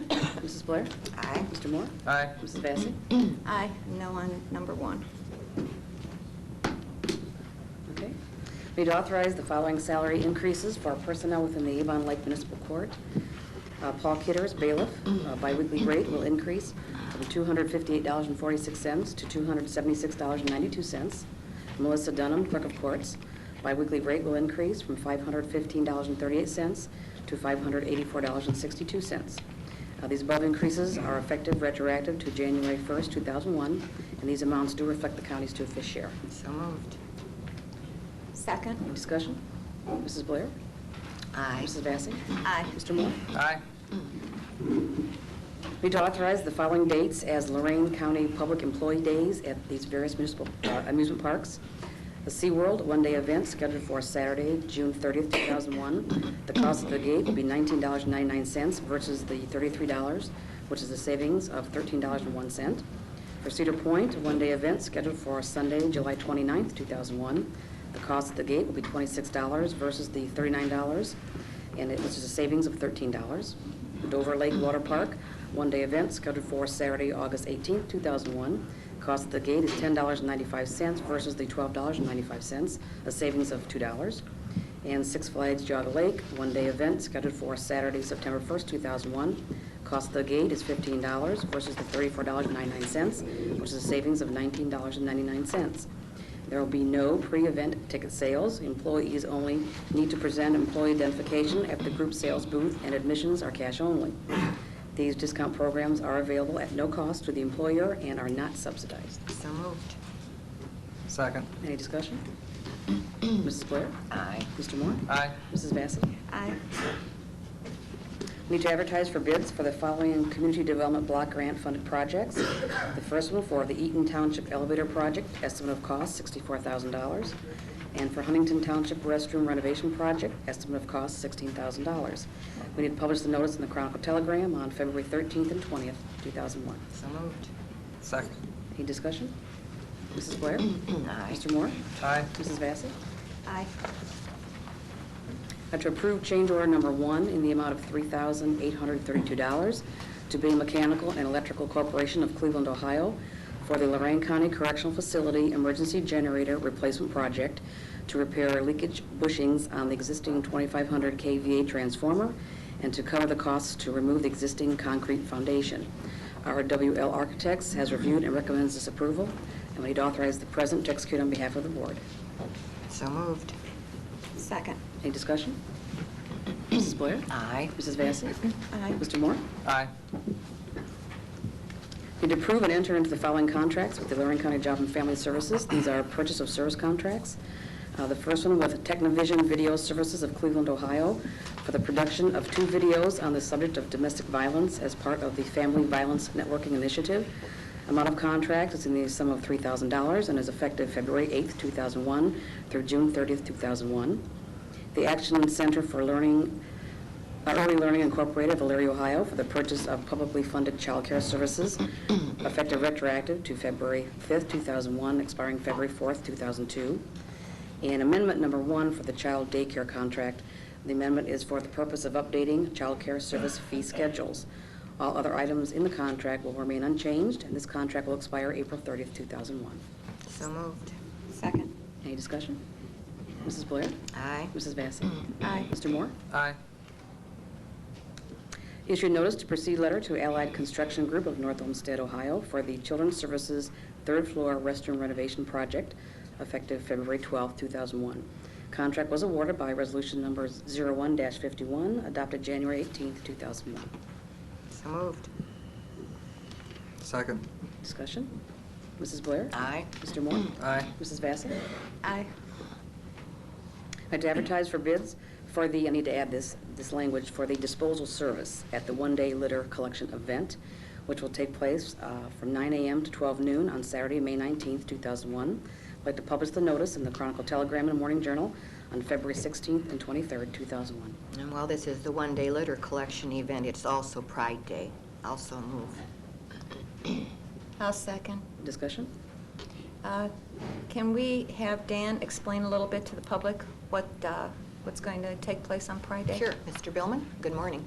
Mrs. Blair? Aye. Mr. Moore? Aye. Mrs. Vacy? Aye. No on number one. Okay. Need to authorize the following salary increases for personnel within the Avon Lake Municipal Court. Uh, Paul Kitters, bailiff, uh, biweekly rate will increase from $258.46 to $276.92. Melissa Dunham, clerk of courts, biweekly rate will increase from $515.38 to $584.62. Uh, These above increases are effective retroactive to January 1st, 2001, and these amounts do reflect the county's two-fifth share. So moved. Second. Any discussion? Mrs. Blair? Aye. Mrs. Vacy? Aye. Mr. Moore? Aye. Need to authorize the following dates as Lorraine County Public Employee Days at these various municipal uh, amusement parks. The SeaWorld one-day event scheduled for Saturday, June 30th, 2001. The cost of the gate will be $19.99 versus the $33, which is a savings of $13.01. For Cedar Point, a one-day event scheduled for Sunday, July 29th, 2001. The cost of the gate will be $26 versus the $39, and it, which is a savings of $13. Dover Lake Water Park, one-day event scheduled for Saturday, August 18th, 2001. Cost of the gate is $10.95 versus the $12.95, a savings of $2. And Six Flags Jog Lake, one-day event scheduled for Saturday, September 1st, 2001. Cost of the gate is $15 versus the $34.99, which is a savings of $19.99. There will be no pre-event ticket sales. Employees only need to present employee identification at the group sales booth, and admissions are cash only. These discount programs are available at no cost to the employer and are not subsidized. So moved. Second. Any discussion? Mrs. Blair? Aye. Mr. Moore? Aye. Mrs. Vacy? Aye. Need to advertise for bids for the following community development block grant funded projects. The first one for the Eaton Township Elevator Project, estimate of cost $64,000. And for Huntington Township Restroom Renovation Project, estimate of cost $16,000. We need to publish the notice in the Chronicle Telegram on February 13th and 20th, 2001. So moved. Second. Any discussion? Mrs. Blair? Aye. Mr. Moore? Aye. Mrs. Vacy? Aye. Uh, To approve change order number one in the amount of $3,832 to Bay Mechanical and Electrical Corporation of Cleveland, Ohio, for the Lorraine County Correctional Facility Emergency Generator Replacement Project to repair leakage bushings on the existing 2,500 KVA transformer and to cover the costs to remove the existing concrete foundation. Our WL Architects has reviewed and recommends this approval, and we need to authorize the president to execute on behalf of the board. So moved. Second. Any discussion? Mrs. Blair? Aye. Mrs. Vacy? Aye. Mr. Moore? Aye. Need to approve and enter into the following contracts with the Lorraine County Job and Family Services. These are purchase of service contracts. Uh, The first one with Technovision Video Services of Cleveland, Ohio, for the production of two videos on the subject of domestic violence as part of the Family Violence Networking Initiative. Amount of contract is in the sum of $3,000 and is effective February 8th, 2001 through June 30th, 2001. The Action Center for Learning uh, Early Learning Incorporated, Valeria, Ohio, for the purchase of publicly funded childcare services effective retroactive to February 5th, 2001, expiring February 4th, 2002. And amendment number one for the child daycare contract. The amendment is for the purpose of updating childcare service fee schedules. All other items in the contract will remain unchanged, and this contract will expire April 30th, 2001. So moved. Second. Any discussion? Mrs. Blair? Aye. Mrs. Vacy? Aye. Mr. Moore? Aye. Issue notice to proceed letter to Allied Construction Group of North Olmsted, Ohio for the Children's Services Third Floor Restroom Renovation Project effective February 12, 2001. Contract was awarded by Resolution Number 01-51, adopted January 18, 2001. So moved. Second. Discussion? Mrs. Blair? Aye. Mr. Moore? Aye. Mrs. Vacy? Aye. I to advertise for bids for the, I need to add this, this language, for the disposal service at the one-day litter collection event, which will take place uh, from 9 a.m. to 12 noon on Saturday, May 19th, 2001. I'd like to publish the notice in the Chronicle Telegram and Morning Journal on February 16th and 23rd, 2001. And while this is the one-day litter collection event, it's also Pride Day. Also move. I'll second. Discussion? Uh, Can we have Dan explain a little bit to the public what, uh, what's going to take place on Pride Day? Sure. Mr. Billman, good morning.